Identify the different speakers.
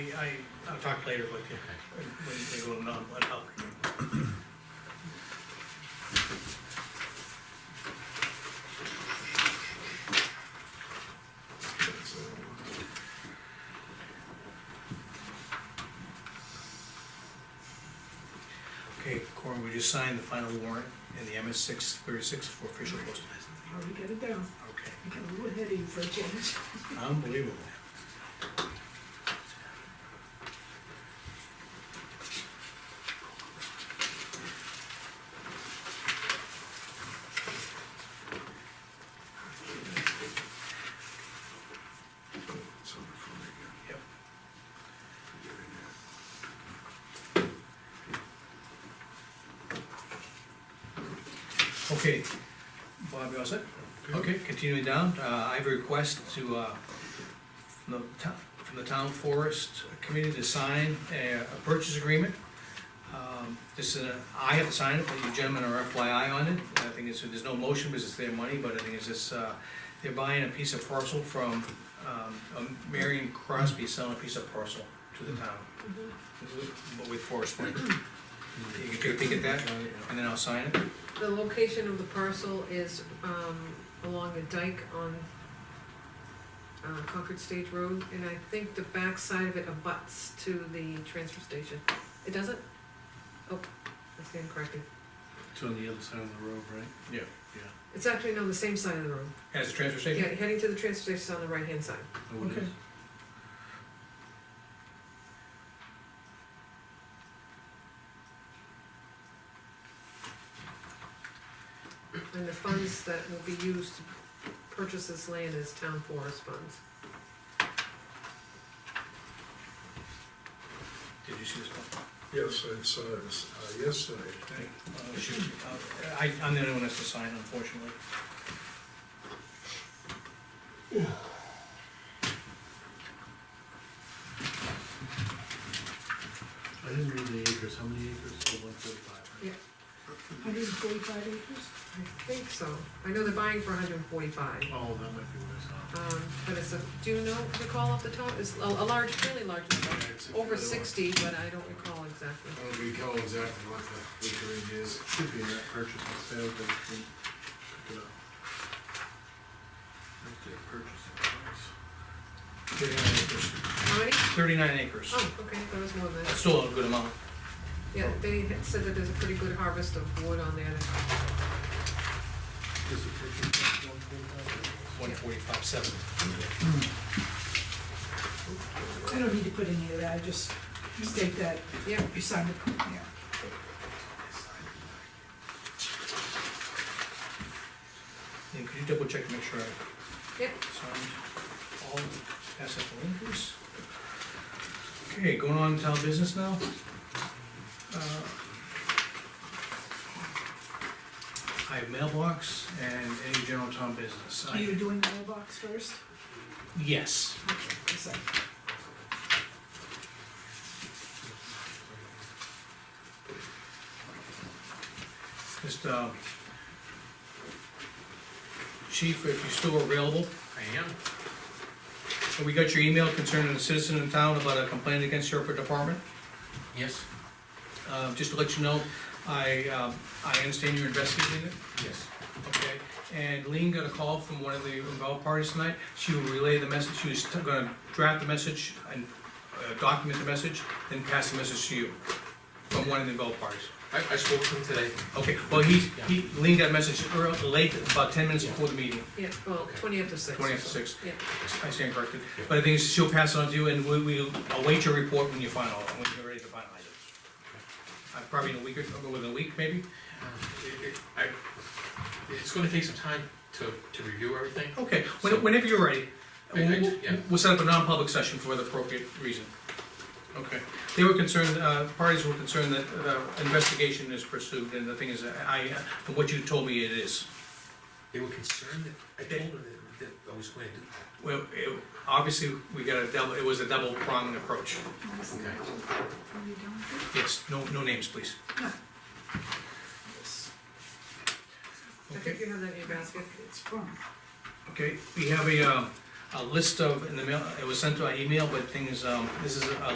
Speaker 1: I, I'll talk later with you, when we go on, on help. Okay, Corin, we just signed the final warrant in the MS six thirty-six for official posting.
Speaker 2: Already got it down.
Speaker 1: Okay,
Speaker 2: I got a little heady for a change.
Speaker 1: unbelievable.
Speaker 3: It's on the front again,
Speaker 1: Yep.
Speaker 3: forget it now.
Speaker 1: Okay, Bob, you all set? Okay, continuing down, uh, I have a request to, uh, from the town, from the town forest committee to sign a, a purchase agreement. Um, This is, a- I have to sign it, but you gentlemen are FYI on it, I think it's, there's no motion, because it's their money, but I think it's just, uh, they're buying a piece of parcel from, um, um, Marion Crosby selling a piece of parcel to the town. But with forest land. You can take a peek at that, and then I'll sign it.
Speaker 4: The location of the parcel is, um, along a dike on, uh, Concord State Road, and I think the backside of it abuts to the transfer station. It doesn't? Oh, I stand corrected.
Speaker 5: It's on the other side of the road, right?
Speaker 1: Yeah.
Speaker 4: It's actually on the same side of the road.
Speaker 1: As a transfer station?
Speaker 4: Yeah, heading to the transfer station is on the right-hand side.
Speaker 5: Oh, it is.
Speaker 2: Okay.
Speaker 4: And the funds that will be used to purchase this land is town forest funds.
Speaker 1: Did you see this one?
Speaker 3: Yes, I saw this uh, yesterday.
Speaker 1: Uh, shoot, uh, I, I'm the only one that's to sign unfortunately.
Speaker 5: I didn't read the acres, how many acres? Oh, one forty-five,
Speaker 4: Yeah,
Speaker 5: right?
Speaker 2: Hundred and forty-five acres?
Speaker 4: I think so. I know they're buying for hundred and forty-five.
Speaker 5: Oh, that might be what I
Speaker 4: Um, but it's a, do you know, recall off the top, it's a, a large, fairly large number,
Speaker 3: It's a
Speaker 4: over
Speaker 3: fair one.
Speaker 4: sixty, but I don't recall exactly.
Speaker 3: I don't recall exactly what the acreage is.
Speaker 5: saw. Should be in that purchase and sale, but I can pick it up. Right there, purchase and price.
Speaker 1: Thirty-nine acres.
Speaker 4: How many?
Speaker 1: Thirty-nine acres.
Speaker 4: Oh, okay, there was more than
Speaker 1: That's
Speaker 4: that.
Speaker 1: Still a good amount.
Speaker 4: Yeah, they had said that there's a pretty good harvest of wood on there.
Speaker 5: Is the purchase price one forty-five?
Speaker 1: One forty-five, seven.
Speaker 2: I don't need to put any of that, I just state that
Speaker 4: Yeah,
Speaker 2: you signed it, yeah.
Speaker 1: And could you double check to make sure I
Speaker 4: yeah,
Speaker 1: signed all, pass up the link, please? Okay, going on to town business now. Uh, I have mailbox and any general town business. I-
Speaker 2: Are you doing mailbox first?
Speaker 1: Yes.
Speaker 2: Okay, one sec.
Speaker 1: Just, uh, chief, if you're still available,
Speaker 6: I am,
Speaker 1: so we got your email concerning a citizen in town about a complaint against your department.
Speaker 6: yes,
Speaker 1: Uh, just to let you know, I, um, I understand you're investigating it,
Speaker 6: yes,
Speaker 1: okay? And Lean got a call from one of the involved parties tonight, she will relay the message, she was gonna draft the message and uh, document the message, then pass the message to you, from one of the involved parties.
Speaker 6: I, I spoke to him today,
Speaker 1: Okay, well, he, he, Lean got a message early, late, about ten minutes before the meeting.
Speaker 4: yeah, well, twenty after six.
Speaker 1: 20 after six.
Speaker 4: Yeah,
Speaker 1: I stand corrected, but the thing is, she'll pass it on to you, and we, we await your report when you final, when you're ready to finalize it. Uh, Probably in a week or, or within a week, maybe?
Speaker 6: Um, it- it- I, it's gonna take some time to, to review everything,
Speaker 1: Okay, when- whenever you're ready,
Speaker 6: I- I-
Speaker 1: we'll,
Speaker 6: yeah.
Speaker 1: we'll set up a non-public session for the appropriate reason. Okay, they were concerned, uh, parties were concerned that the investigation is pursued, and the thing is, I, uh, from what you told me, it is.
Speaker 6: they were concerned that, I told them that, that I was going to do that.
Speaker 1: Well, it, obviously, we got a double, it was a double pronged approach.
Speaker 6: Okay.
Speaker 2: Are you done with
Speaker 1: Yes, no, no names, please.
Speaker 2: it? Yes.
Speaker 4: I think you have that in your basket.
Speaker 2: It's from,
Speaker 1: Okay, we have a, um, a list of, in the mail, it was sent to our email, but thing is, um, this is a